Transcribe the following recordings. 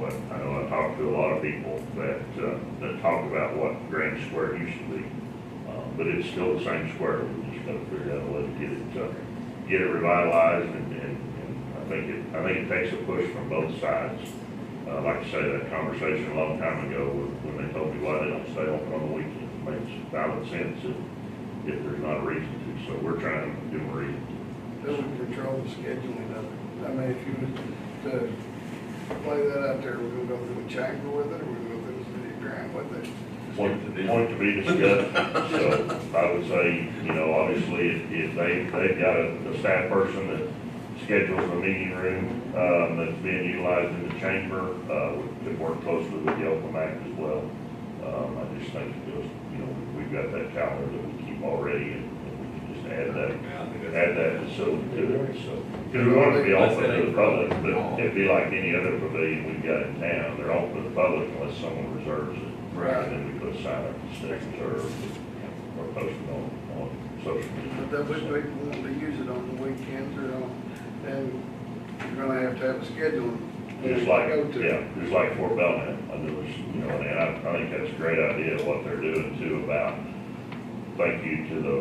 but I uh, know I talked to a lot of people that, uh, that talk about what Grand Square used to be. Uh, But it's still the same square, we just gotta figure out a way to get it, uh, get it revitalized and, and, and I think it, I think it takes a push from both sides. Uh, like I say, that conversation a long time ago, when when they told me why they don't stay open on the weekends, it makes valid sense if, if there's not a reason to, so we're trying to give them a reason to. doesn't control the scheduling of it. I mean, if you was to play that out there, we're gonna go through a chamber with it, or we're gonna go through the city grant with it. point, point to be discussed. So I would say, you know, obviously, if, if they, they've got a, a staff person that schedules a meeting room, um, that's being utilized in the chamber, uh, we could work closely with the Oklahoma Act as well. Um, I just think it goes, you know, we've got that calendar that we keep already, and and we can just add that, add that facility to it, so. Because we want it to be open to the public, but it'd be like any other pavilion we've got in town, they're open to the public unless someone reserves it. Right. And then we put a sign up that says reserved, or post it on, on social media. But that would be people wanting to use it on the weekends or on, and you're gonna have to have a schedule. Just Go like, to. yeah, just like Fort Belknap, I knew it was, you know, and I, I think that's a great idea, what they're doing too about, thank you to the,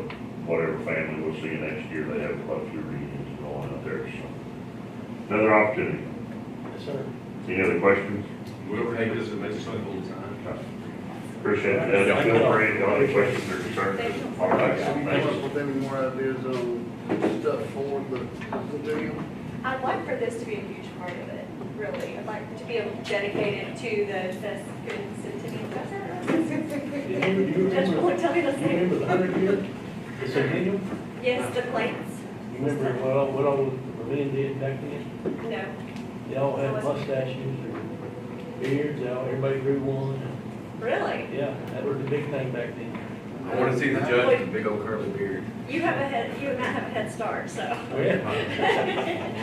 whatever family we'll see next year, they have quite a few reunions going out there, so. Another opportunity. Yes, sir. Any other questions? Whoever takes this, it makes something all the time. Appreciate it. Feel free, if you have any questions or concerns. All right, Have you thank come up you. with any more ideas on stuff for the pavilion? I'd like for this to be a huge part of it, really. I'd like to be able to dedicate it to the, the centennial. Do you remember- do you Judge remember- Moore, tell me the do you name. remember the hundred year, the centennial? Yes, the plates. You remember what all, what all the pavilion did back then? No. They all had mustaches or beards, they all, everybody grew one. Really? Yeah, that was the big thing back then. I wanna see the judge with the big old curly beard. You have a head, you and I have a head start, so. Oh, yeah.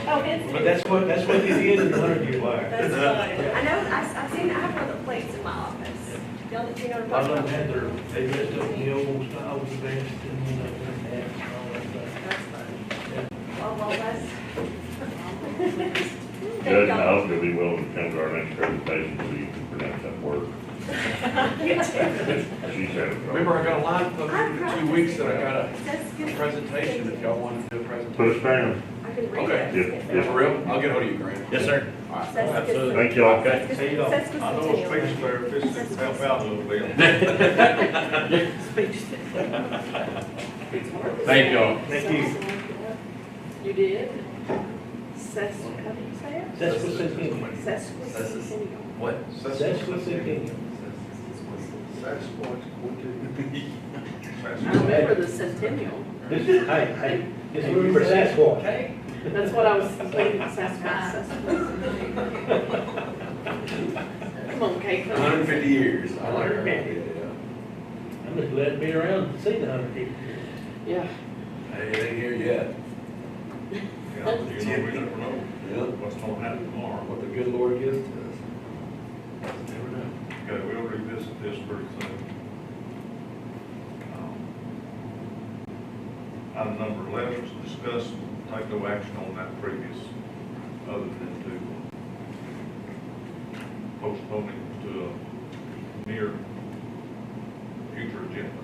Oh, it's. But that's what, that's what they did in the hundred year wire. That's funny. I know, I've, I've seen, I have one of the plates in my office. Y'all, you know A what lot I'm of them had talking about? their, they dressed up in the old style with vests and, you know, their hats and all that stuff. That's funny. Oh, well, that's. Thank Judge, I y'all. hope you'll be willing to come to our next presentation, so you can pronounce that word. You too. She's having trouble. Remember, I got a line I'm posted in practicing. two weeks that I got That's a good. presentation, if y'all wanted to do a presentation. Put us down. I can read Okay. it. Yeah, Yeah, for real? I'll get hold of you, Grant. Yes, sir. All right. Says- Thank y'all. Okay. See y'all. says I know a Centennial. speech therapist that can help out a little bit. Thank y'all. Thank You did? Sas, how do you say it? That's what centennial. Sesquicentennial. What? That's what's in it. Sasquatch, what I remember the centennial. This is, hey, hey, this is room for Sasquatch. That's what I was thinking, Sasquatch, Sasquatch. Come on, Kate. Hundred and fifty years. I like her. Yeah. I'm just glad to be around and see the hundred people. Yeah. Hey, it ain't here yet. Yeah. Yeah. That's That's it. it. We never know know what's gonna happen tomorrow. What the good Lord gives to us. Never know. Okay, we'll revisit this pretty soon. Um, Item number eleven is discuss, take no action on that previous, other than to postpone it to a near future agenda.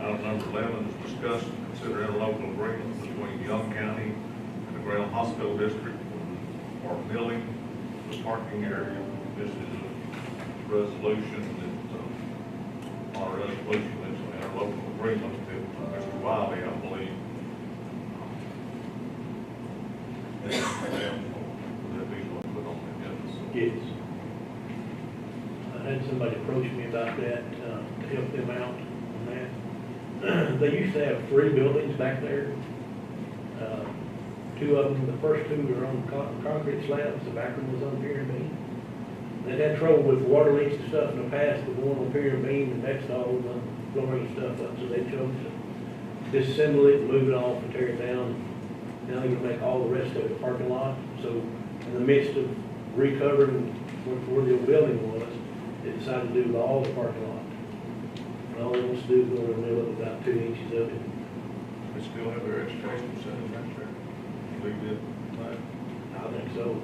Item number eleven is discuss, and consider interlocal agreement between Young County and the Graham Hospital District for milling the parking area. This is a resolution that, uh, our resolution is an interlocal agreement that Mr. Wiley, I believe. That he's going to put on the agenda, so. Yes. I had somebody approach me about that, uh, to help them out on that. They used to have three buildings back there. Uh, Two of them, the first two were on con- concrete slabs, the back one was on pier and beam. They had trouble with water leaks and stuff in the past, but one on pier and beam, the next all was on flooring and stuff up, so they chose to disassemble it, move it off, and tear it down. Now they're gonna make all the rest of it parking lot, so in the midst of recovering what- where the old building was, they decided to do all the parking lot. And all they want to do is go in the middle of about two inches of it. They still have their education center back there. Leave it, like, I think so.